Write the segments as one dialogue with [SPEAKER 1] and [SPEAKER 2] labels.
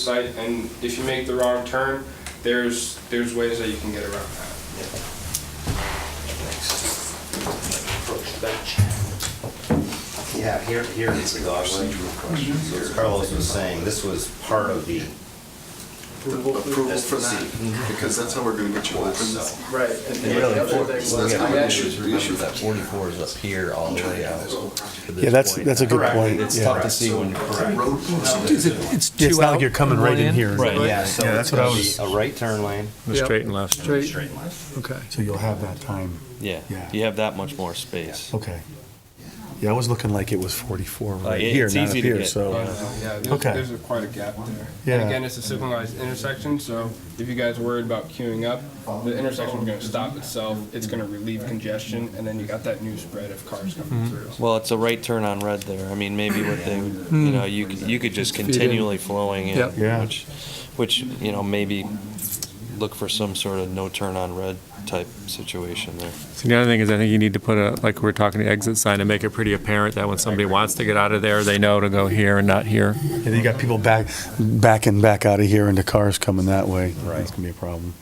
[SPEAKER 1] site, and if you make the wrong turn, there's, there's ways that you can get around that.
[SPEAKER 2] Yeah, here, here is the dogleg. So As Carlos was saying, this was part of the
[SPEAKER 3] approval for
[SPEAKER 2] SDC.
[SPEAKER 3] that, because that's how we're gonna get you open.
[SPEAKER 2] So,
[SPEAKER 4] Right. and
[SPEAKER 5] And really,
[SPEAKER 4] the other
[SPEAKER 5] four-
[SPEAKER 4] thing
[SPEAKER 5] so
[SPEAKER 4] was-
[SPEAKER 5] we
[SPEAKER 4] I
[SPEAKER 5] have
[SPEAKER 3] Yeah.
[SPEAKER 5] to
[SPEAKER 3] actually-
[SPEAKER 4] actually-
[SPEAKER 5] do is remember that forty-four is up here all the way out. to this
[SPEAKER 6] Yeah, that's,
[SPEAKER 5] point.
[SPEAKER 6] that's a good
[SPEAKER 2] Correct.
[SPEAKER 6] point.
[SPEAKER 5] It's
[SPEAKER 6] yeah.
[SPEAKER 5] tough to see when, correct.
[SPEAKER 3] Road closed.
[SPEAKER 7] It's
[SPEAKER 6] Yeah, It's
[SPEAKER 7] two
[SPEAKER 6] not like
[SPEAKER 7] out
[SPEAKER 6] you're coming
[SPEAKER 7] and
[SPEAKER 6] right
[SPEAKER 7] one
[SPEAKER 6] in here.
[SPEAKER 7] Right.
[SPEAKER 5] Yeah, so
[SPEAKER 7] Yeah,
[SPEAKER 5] it's
[SPEAKER 7] that's what I
[SPEAKER 5] gonna be
[SPEAKER 7] was-
[SPEAKER 5] a right turn lane.
[SPEAKER 7] The
[SPEAKER 4] Yep.
[SPEAKER 7] straight and left.
[SPEAKER 4] Straight,
[SPEAKER 2] straight left.
[SPEAKER 4] okay.
[SPEAKER 6] So you'll have that time.
[SPEAKER 8] Yeah,
[SPEAKER 6] Yeah.
[SPEAKER 8] you have that much more space.
[SPEAKER 6] Okay. Yeah, I was looking like it was 44
[SPEAKER 8] Uh,
[SPEAKER 6] right
[SPEAKER 8] it-
[SPEAKER 6] here,
[SPEAKER 8] it's
[SPEAKER 6] not up
[SPEAKER 8] easy to
[SPEAKER 6] here,
[SPEAKER 8] get.
[SPEAKER 6] so.
[SPEAKER 1] Uh, Yeah, there's,
[SPEAKER 6] Oh, Okay.
[SPEAKER 1] there's a- quite a gap there.
[SPEAKER 6] Yeah.
[SPEAKER 1] And again, it's a signalized intersection, so if you guys are worried about queuing up, the intersection's gonna stop itself, it's gonna relieve congestion, and then you got that new spread of cars
[SPEAKER 6] Mm-hmm.
[SPEAKER 1] coming through.
[SPEAKER 8] Well, it's a right turn on red there. I mean, maybe what they, you know, you, c- you could just
[SPEAKER 4] Hmm. Feed in.
[SPEAKER 8] continually flowing
[SPEAKER 4] Yep.
[SPEAKER 6] Yeah.
[SPEAKER 8] in, which, which, you know, maybe look for some sort of no turn on red type situation there.
[SPEAKER 7] So the other thing is, I think you need to put a, like we we're talking, exit sign and make it pretty apparent that when somebody wants to get out of there, they know to go here and not here.
[SPEAKER 6] Yeah, you got people back, backing back out of here into cars coming that way. That's gonna be a problem.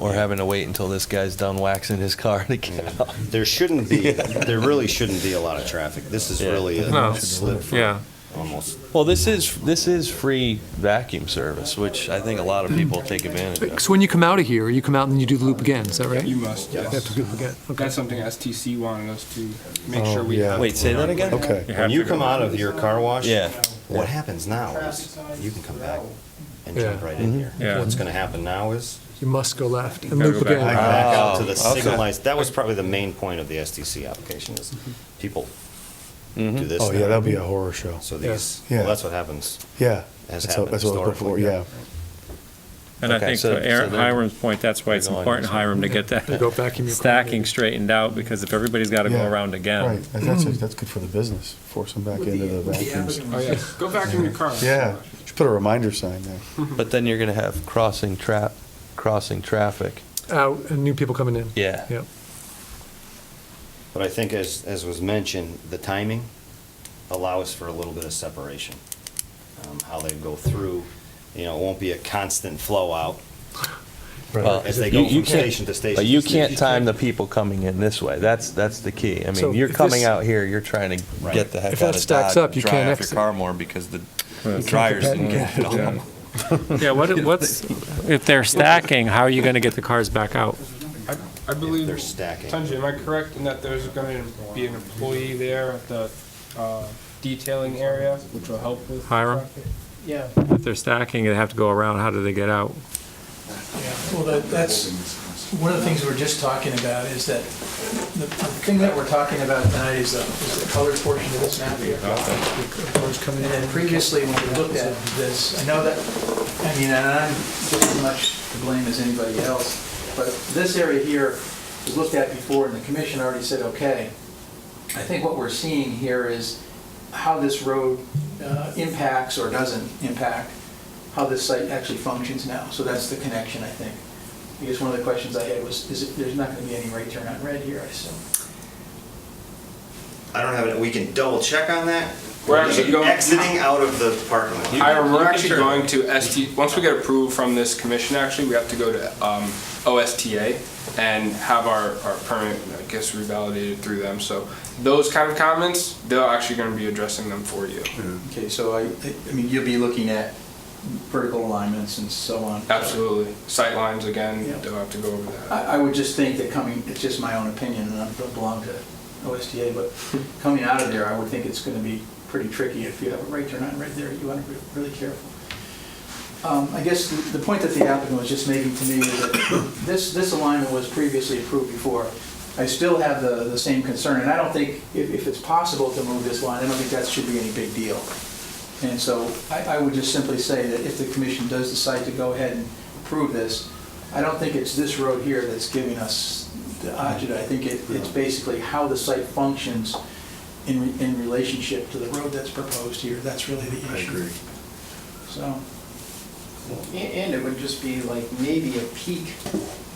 [SPEAKER 8] Or having to wait until this guy's done waxing his car to get out.
[SPEAKER 2] There shouldn't be, there really shouldn't be a lot of traffic. This is
[SPEAKER 8] Yeah.
[SPEAKER 2] really
[SPEAKER 7] No.
[SPEAKER 2] a slip for
[SPEAKER 7] Yeah,
[SPEAKER 2] almost.
[SPEAKER 8] Well, this is, this is free vacuum service, which I think a lot of people take advantage of.
[SPEAKER 7] of.
[SPEAKER 4] So when you come out of here, you come out and you do the loop again, is that right?
[SPEAKER 1] You
[SPEAKER 4] You
[SPEAKER 1] must,
[SPEAKER 4] have to
[SPEAKER 1] yes.
[SPEAKER 4] do the loop again, okay.
[SPEAKER 1] That's something STC wanted us to make
[SPEAKER 6] Oh,
[SPEAKER 1] sure we
[SPEAKER 6] yeah.
[SPEAKER 1] have.
[SPEAKER 8] Wait, say that again?
[SPEAKER 6] Okay.
[SPEAKER 7] have
[SPEAKER 2] When you
[SPEAKER 7] to
[SPEAKER 2] come
[SPEAKER 7] go.
[SPEAKER 2] out of your car wash.
[SPEAKER 8] Yeah.
[SPEAKER 2] What happens now is you can come back and jump
[SPEAKER 4] Yeah.
[SPEAKER 2] right in here.
[SPEAKER 7] Yeah.
[SPEAKER 2] What's gonna happen now is
[SPEAKER 4] You must go left and
[SPEAKER 7] gotta
[SPEAKER 4] loop
[SPEAKER 7] go back.
[SPEAKER 4] again.
[SPEAKER 2] back out to the
[SPEAKER 8] okay.
[SPEAKER 2] signalized, that was probably the main point of the SDC application is people do this.
[SPEAKER 6] Oh, yeah,
[SPEAKER 2] now.
[SPEAKER 6] that'd be a horror show.
[SPEAKER 2] So these,
[SPEAKER 6] Yeah.
[SPEAKER 2] well, that's what happens.
[SPEAKER 6] Yeah.
[SPEAKER 2] Has
[SPEAKER 6] That's
[SPEAKER 2] happened
[SPEAKER 6] what- that's what I was looking for,
[SPEAKER 2] historically,
[SPEAKER 6] yeah.
[SPEAKER 7] And I
[SPEAKER 8] Okay,
[SPEAKER 7] think
[SPEAKER 8] so-
[SPEAKER 7] to Aaron-
[SPEAKER 8] so they're-
[SPEAKER 7] Hiram's point, that's why it's
[SPEAKER 8] They're going
[SPEAKER 7] important,
[SPEAKER 8] this way.
[SPEAKER 7] Hiram, to get that
[SPEAKER 4] Go back in your car.
[SPEAKER 7] stacking straightened out, because if everybody's got to go
[SPEAKER 6] Yeah.
[SPEAKER 7] around
[SPEAKER 6] Right,
[SPEAKER 7] again,
[SPEAKER 6] that's, that's- that's good for the business. Force them back into the vacuums.
[SPEAKER 1] Oh, yeah, go back in your car.
[SPEAKER 6] Yeah, should put a reminder sign there.
[SPEAKER 8] But then you're gonna have crossing trap, crossing traffic.
[SPEAKER 4] Out and new people coming in.
[SPEAKER 8] Yeah.
[SPEAKER 4] Yep.
[SPEAKER 2] But I think as, as was mentioned, the timing allows for a little bit of separation. Um, How they go through, you know, it won't be a constant flow out
[SPEAKER 8] Well,
[SPEAKER 2] as they
[SPEAKER 8] you-
[SPEAKER 2] go
[SPEAKER 8] you
[SPEAKER 2] from
[SPEAKER 8] can't-
[SPEAKER 2] station to station.
[SPEAKER 8] But you
[SPEAKER 2] to
[SPEAKER 8] can't
[SPEAKER 2] station.
[SPEAKER 8] time the people coming in this way. That's, that's the key. I
[SPEAKER 4] So
[SPEAKER 8] mean, you're
[SPEAKER 4] if
[SPEAKER 8] coming
[SPEAKER 4] this-
[SPEAKER 8] out here, you're trying to
[SPEAKER 2] Right.
[SPEAKER 8] get the heck
[SPEAKER 4] If
[SPEAKER 8] out
[SPEAKER 4] that
[SPEAKER 8] of
[SPEAKER 4] stacks
[SPEAKER 8] Dodge
[SPEAKER 4] up,
[SPEAKER 8] and
[SPEAKER 4] you
[SPEAKER 8] dry
[SPEAKER 4] can't
[SPEAKER 8] off your
[SPEAKER 4] exit.
[SPEAKER 8] car more because the dryers didn't get it all.
[SPEAKER 7] yeah, what, what's, if they're stacking, how are you going to get the cars back out?
[SPEAKER 1] I, I believe.
[SPEAKER 2] they're stacking.
[SPEAKER 1] Tunji, am I correct in that there's gonna be an employee there at the, uh, detailing area, which will help with?
[SPEAKER 7] Hiram?
[SPEAKER 1] traffic?
[SPEAKER 9] Yeah,
[SPEAKER 7] If they're stacking, they have to go around, how do they get out?
[SPEAKER 9] yeah. Well, that- that's, one of the things we we're just talking about is that, the the thing that we're talking about tonight is the, is the colored portion of this map here.
[SPEAKER 4] Cars coming
[SPEAKER 9] And
[SPEAKER 4] in.
[SPEAKER 9] then previously, when we looked at this, I know that, I mean, and I'm just as much to blame as anybody else, but this area here was looked at before, and the commission already said, okay. I think what we're seeing here is how this road uh, impacts or doesn't impact how this site actually functions now. So that's the connection, I think. I guess one of the questions I had was, is it, there's not going to be any right turn on red here, I assume.
[SPEAKER 2] I don't have it, we can double check on that.
[SPEAKER 1] We're actually going-
[SPEAKER 2] Exiting out of the parking lot.
[SPEAKER 1] Hiram, we're
[SPEAKER 8] you can
[SPEAKER 1] actually
[SPEAKER 8] turn.
[SPEAKER 1] going to ST, once we get approval from this commission, actually, we have to go to um, OSTA and have our, our permit, I guess, revalidated through them. So those kind of comments, they're actually going to be addressing them for you.
[SPEAKER 9] Okay, so I, I mean, you'll be looking at vertical alignments and so on.
[SPEAKER 1] Absolutely. Sightlines, again,
[SPEAKER 9] Yeah.
[SPEAKER 1] they'll have to go over that.
[SPEAKER 9] I, I would just think that coming, it's just my own opinion, and I don't belong to OSTA, but coming out of there, I would think it's gonna be pretty tricky if you have a right turn on right there, you wanna be really careful. Um, I guess the, the point that the applicant was just making to me is that this, this alignment was previously approved before. I still have the, the same concern, and I don't think, if, if it's possible to move this line, I don't think that should be any big deal. And so I, I would just simply say that if the commission does decide to go ahead and approve this, I don't think it's this road here that's giving us the agita. I think it, it's basically how the site functions in, in relationship to the road that's proposed here. That's really the issue. I agree. So.
[SPEAKER 10] A- And it would just be like maybe a peak,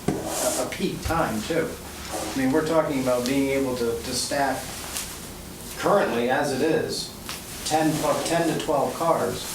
[SPEAKER 10] a a peak time too. I mean, we're talking about being able to, to staff currently as it is, 10, pu- 10 to 12 cars